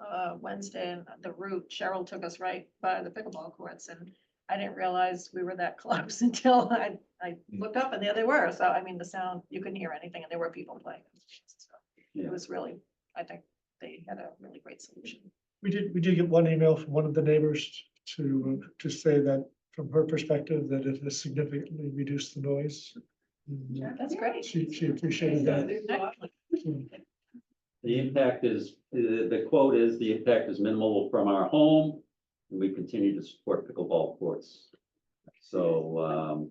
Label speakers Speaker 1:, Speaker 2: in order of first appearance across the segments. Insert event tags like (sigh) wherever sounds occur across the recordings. Speaker 1: uh, Wednesday and the route, Cheryl took us right by the pickleball courts and I didn't realize we were that (laughs) close until I, I looked up and there they were. So I mean, the sound, you couldn't hear anything and there were people playing. So It
Speaker 2: Yeah.
Speaker 1: was really, I think they had a really great solution.
Speaker 3: We did, we did get one email from one of the neighbors to, to say that from her perspective, that it has significantly reduced the noise. And
Speaker 1: That's great.
Speaker 3: She, she appreciated that.
Speaker 1: Excellent.
Speaker 3: Mm-hmm.
Speaker 2: The impact is, the, the quote is, the impact is minimal from our home, and we continue to support pickleball courts. So, um,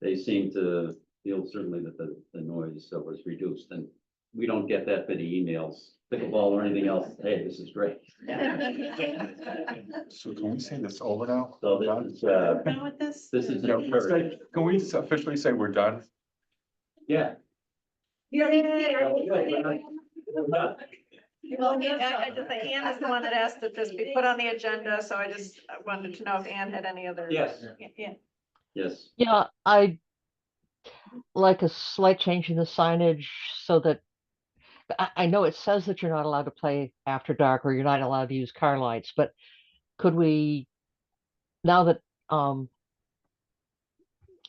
Speaker 2: they seem to feel certainly that the, the noise uh, was reduced, and we don't get that many emails, pickleball or anything else, hey, this is great.
Speaker 4: So can we say this over now?
Speaker 2: So this is, uh,
Speaker 5: Now with this.
Speaker 2: this is
Speaker 4: Yeah, we say- Can we officially say we're done?
Speaker 2: yeah.
Speaker 5: You don't need to say
Speaker 2: Well, good, we're
Speaker 5: it.
Speaker 2: not- we're not-
Speaker 1: Well, I, I just, Ann is the one that asked that this be put on the agenda, so I just wanted to know if Ann had any other.
Speaker 2: Yes,
Speaker 1: Yeah,
Speaker 2: yes,
Speaker 6: Yeah, I like a slight change in the signage so that I, I know it says that you're not allowed to play after dark or you're not allowed to use car lights, but could we, now that, um,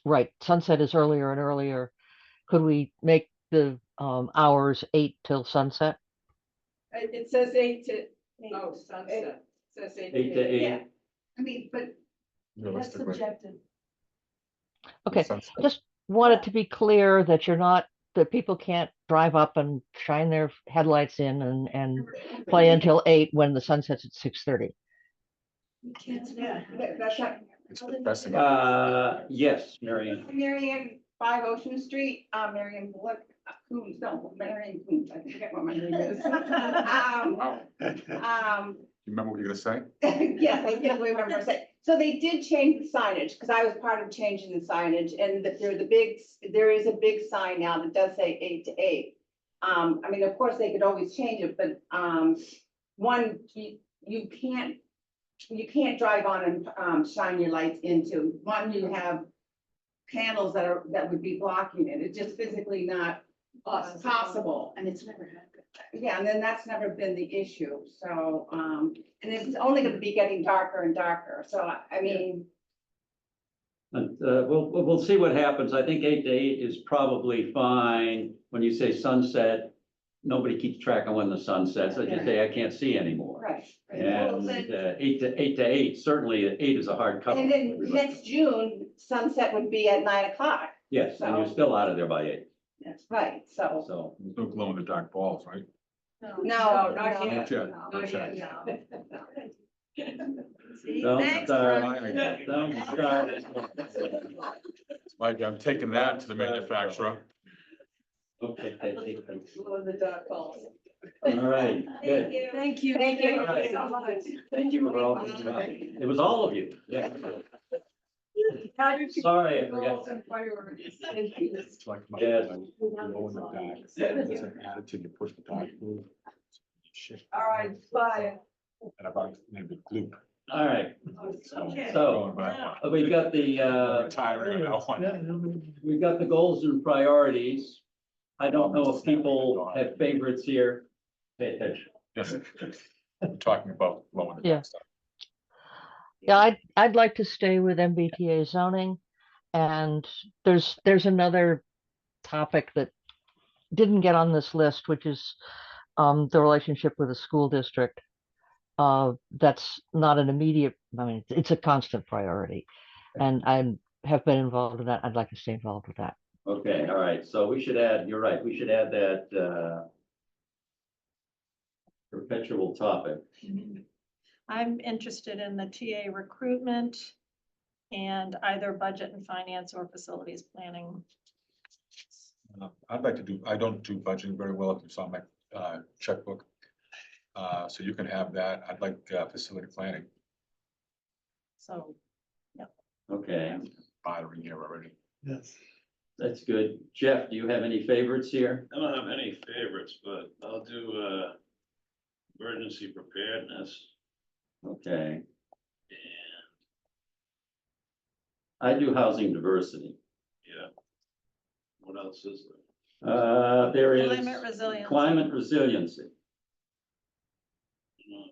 Speaker 6: right, sunset is earlier and earlier, could we make the, um, hours eight till sunset?
Speaker 5: It it says eight to, oh,
Speaker 1: sunset.
Speaker 5: sunset, says eight.
Speaker 2: eight to
Speaker 5: Yeah.
Speaker 2: eight,
Speaker 5: I mean, but that's
Speaker 4: Realistically,
Speaker 5: subjective.
Speaker 6: Okay,
Speaker 4: sunset.
Speaker 6: just want it to be clear that you're not, that people can't drive up and shine their headlights in and, and play until eight when the sun sets at six thirty.
Speaker 1: Yeah.
Speaker 5: That- That's not,
Speaker 4: It's depressing.
Speaker 2: uh, yes, Mary Ann.
Speaker 5: Marion, five Ocean Street, uh, Marion, look, Coombs, no, Marion Coombs, I forget what my name is. (laughs) Um,
Speaker 4: Wow. You
Speaker 5: um,
Speaker 4: remember what you're gonna say?
Speaker 5: (laughs) Yes, I can't remember. So- So they did change the signage, because I was part of changing the signage, and that there, the big, there is a big sign now that does say eight to eight. Um, I mean, of course, they could always change it, but, um, one, you, you can't, you can't drive on and, um, shine your lights into. One, you have panels that are, that would be blocking it. It's just physically not possible.
Speaker 1: And it's never happened.
Speaker 5: Yeah, and then that's never been the issue, so, um, and it's only gonna be getting darker and darker, so I- I mean,
Speaker 2: And, uh, we'll, we'll we'll see what happens. I think eight to eight is probably fine. When you say sunset, nobody keeps track of when the sun sets. I just say, I can't see anymore.
Speaker 5: right.
Speaker 2: And uh, eight to, eight to eight, certainly eight is a hard cut.
Speaker 5: And then next June, sunset would be at nine o'clock,
Speaker 2: Yes, and you're still out of there by eight,
Speaker 5: that's right, so.
Speaker 2: so.
Speaker 4: There's No glow in the dark balls, right?
Speaker 5: No, not
Speaker 4: Not
Speaker 5: yet.
Speaker 4: yet,
Speaker 5: No,
Speaker 1: Oh,
Speaker 4: not yet.
Speaker 5: no, no. (laughs)
Speaker 2: Don't start,
Speaker 4: Finally,
Speaker 2: don't start.
Speaker 4: Mike, I'm taking that to the manufacturer.
Speaker 2: Okay, take- take- take.
Speaker 5: Glow in the dark balls.
Speaker 2: all right, good.
Speaker 1: Thank you.
Speaker 5: Thank you.
Speaker 1: so much.
Speaker 2: Thank you. for all your help. It was all of you. Yeah.
Speaker 1: How did you-
Speaker 2: Sorry, I forgot.
Speaker 4: It's like my-
Speaker 2: Yes.
Speaker 4: like, glow in the dark. There's an attitude, you push the dark blue. Shit.
Speaker 5: All right, bye.
Speaker 4: And about maybe glue.
Speaker 2: All right,
Speaker 5: Okay.
Speaker 2: so
Speaker 4: Going back.
Speaker 2: uh, we've got the, uh,
Speaker 4: Retiring now.
Speaker 2: We've got the goals and priorities. I don't know if people have favorites here. Pay attention.
Speaker 4: Yes. We're Talking about glow in the
Speaker 6: Yeah.
Speaker 4: dark stuff.
Speaker 6: Yeah, I'd, I'd like to stay with MBTA zoning. And there's, there's another topic that didn't get on this list, which is um, the relationship with a school district. Uh, that's not an immediate, I mean, it's a constant priority. And I'm, have been involved in that. I'd like to stay involved with that.
Speaker 2: Okay, all right, so we should add, you're right, we should add that, uh, perpetual topic.
Speaker 1: I'm interested in the TA recruitment and either budget and finance or facilities planning.
Speaker 4: Uh, I'd like to do, I don't do budgeting very well, if you saw my uh, checkbook. Uh, So you can have that. I'd like uh, facility planning,
Speaker 1: So
Speaker 2: Okay,
Speaker 4: bothering here already.
Speaker 3: Yes.
Speaker 2: that's good. Jeff, do you have any favorites here?
Speaker 7: I don't have any favorites, but I'll do, uh, emergency preparedness
Speaker 2: Okay,
Speaker 7: and,
Speaker 2: I do housing diversity.
Speaker 7: yeah. What else is there?
Speaker 2: Uh, there is
Speaker 1: climate resilience.
Speaker 2: climate resiliency.
Speaker 7: You know,